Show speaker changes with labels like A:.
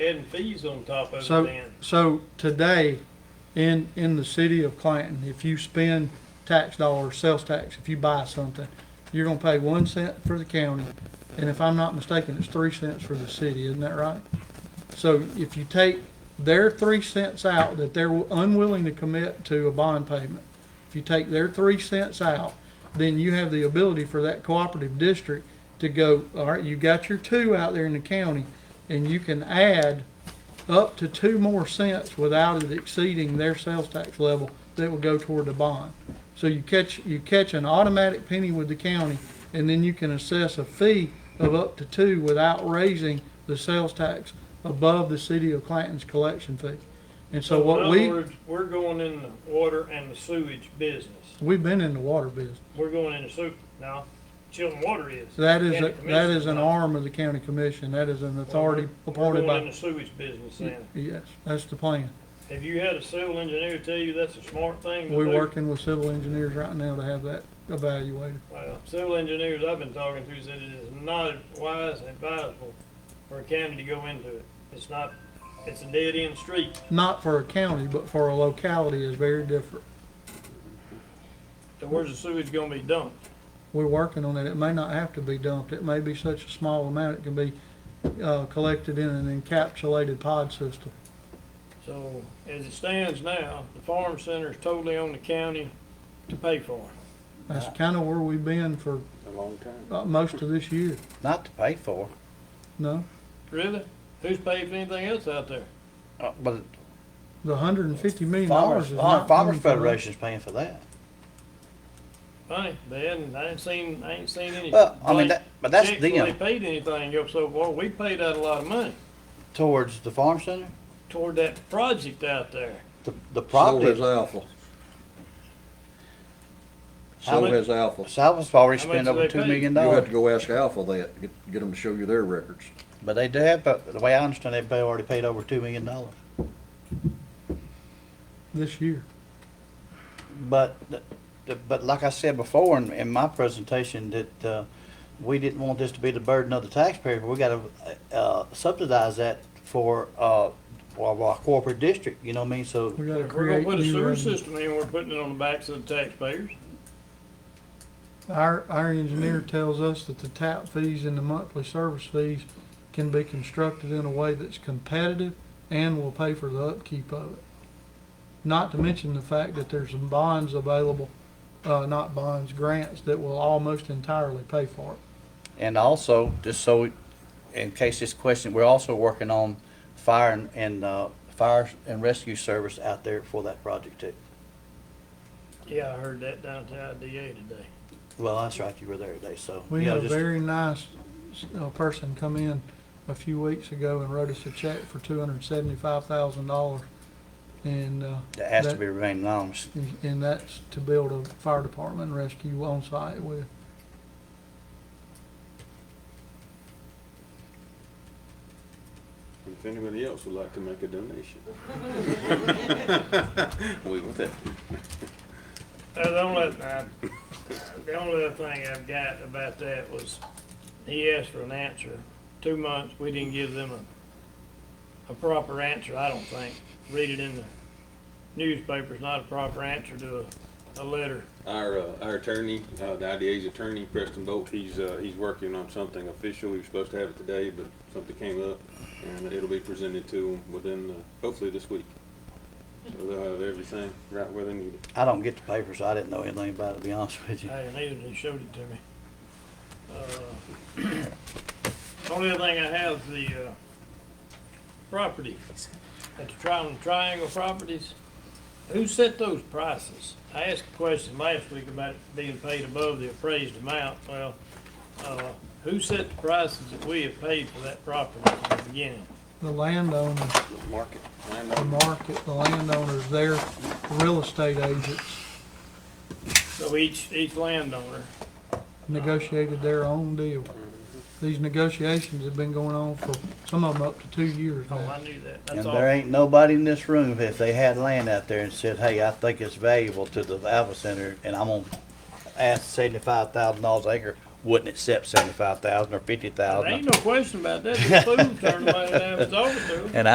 A: adding fees on top of it
B: So,
A: then.
B: so today, in, in the city of Clanton, if you spend tax dollars, sales tax, if you buy something, you're gonna pay one cent for the county, and if I'm not mistaken, it's three cents for the city, isn't that right? So if you take their three cents out that they're unwilling to commit to a bond payment, if you take their three cents out, then you have the ability for that cooperative district to go, all right, you got your two out there in the county, and you can add up to two more cents without it exceeding their sales tax level that will go toward the bond. So you catch, you catch an automatic penny with the county, and then you can assess a fee of up to two without raising the sales tax above the city of Clanton's collection fee. And so
A: in
B: what
A: other
B: we,
A: words, We're going in the water and the sewage business.
B: we've been in the water business.
A: We're going in the sewer, now, Chilton Water is.
B: That is,
A: County
B: a- that is
A: Commission,
B: an
A: no.
B: arm of the county commission. That is an
A: We're-
B: authority
A: We're
B: appointed
A: going in the
B: by.
A: sewage business then.
B: Yes, that's the plan.
A: Have you had a civil engineer tell you that's a smart thing to do?
B: We're working with civil engineers right now to have that evaluated.
A: Well, civil engineers I've been talking to said it is not wise and advisable for a county to go into it. It's not, it's a dead end street.
B: Not for a county, but for a locality is very different.
A: So where's the sewage gonna be dumped?
B: We're working on it. It may not have to be dumped. It may be such a small amount, it can be, uh, collected in an encapsulated pod system.
A: So as it stands now, the farm center is totally on the county to pay for it.
B: That's kinda where we've been for,
C: Ah. A long time.
B: uh, most of this year,
C: Not to pay for,
B: no?
A: Really? Who's paid for anything else out there?
C: uh, but
B: The hundred and fifty million dollars
C: Farmers, uh,
B: is not.
C: Farmers
B: coming from us.
C: Federation's paying for that.
A: Funny, they hadn't, I ain't seen, I ain't seen any.
C: Well, I mean,
A: blank
C: that- but that's
A: checks where
C: them.
A: They paid anything up so far, we paid out a lot of money
C: Towards the farm center,
A: toward that project out there.
C: the, the
D: Sold
C: property,
D: his alpha.
C: How
D: Sold
C: much-
D: his alpha.
C: Salva's already
A: How much
C: spent
A: do
C: over
A: they
C: two
A: pay?
C: million
D: You have
C: dollars.
D: to go ask Alpha that, get, get them to show you their records.
C: But they do have, but the way I understand it, they already paid over two million dollars.
B: This year.
C: But, the- the- but like I said before in, in my presentation, that, uh, we didn't want this to be the burden of the taxpayer, but we gotta, uh, subsidize that for, uh, our, our corporate district, you know what I mean? So
B: We gotta
A: If we're gonna
B: create
A: put a
B: new
A: sewer
B: revenue.
A: system in, we're putting it on the backs of the taxpayers.
B: Our, our engineer tells us that the tap fees and the monthly service fees can be constructed in a way that's competitive and will pay for the upkeep of it. Not to mention the fact that there's some bonds available, uh, not bonds, grants that will almost entirely pay for it.
C: And also, just so, we- in case this question, we're also working on fire and, and, uh, fire and rescue service out there for that project too.
A: Yeah, I heard that down to IDA today.
C: Well, that's right, you were there today, so.
B: We
C: you know,
B: had a
C: just-
B: very nice, uh, person come in a few weeks ago and wrote us a check for two hundred and seventy-five thousand dollars. And, uh,
C: That has to
B: that-
C: be remain anonymous.
B: And- And that's to build a fire department and rescue on site with.
E: If anybody else would like to make a donation. We will take.
A: Uh, The only, uh, the only other thing I've got about that was, he asked for an answer. Two months, we didn't give them a, a proper answer, I don't think. Read it in the newspaper, it's not a proper answer to a, a letter.
E: Our, uh, our attorney, uh, the IDA's attorney, Preston Bolt, he's, uh, he's working on something official. He was supposed to have it today, but something came up and it'll be presented to him within, uh, hopefully this week. So they'll have everything right where they need it.
C: I don't get the papers, I didn't know anything about it, to be honest with you.
A: I didn't either, he showed it to me. Uh, Only other thing I have, is the, uh, property, at the Tri- Triangle Properties, who set those prices? I asked a question last week about it being paid above the appraised amount, well, uh, who set the prices that we have paid for that property from the beginning?
B: The landowner,
E: Market.
B: the market, the landowners, their real estate agents
A: So each, each landowner,
B: negotiated their own deal. These negotiations have been going on for, some of them up to two years
A: oh,
B: now.
A: I knew that,
C: And
A: that's all.
C: there ain't nobody in this room, if they had land out there and said, hey, I think it's valuable to the Alpha Center, and I'm gonna ask seventy-five thousand dollars acre, wouldn't accept seventy-five thousand or fifty thousand.
A: Ain't no question about that. The food turned my, I was over to.
C: And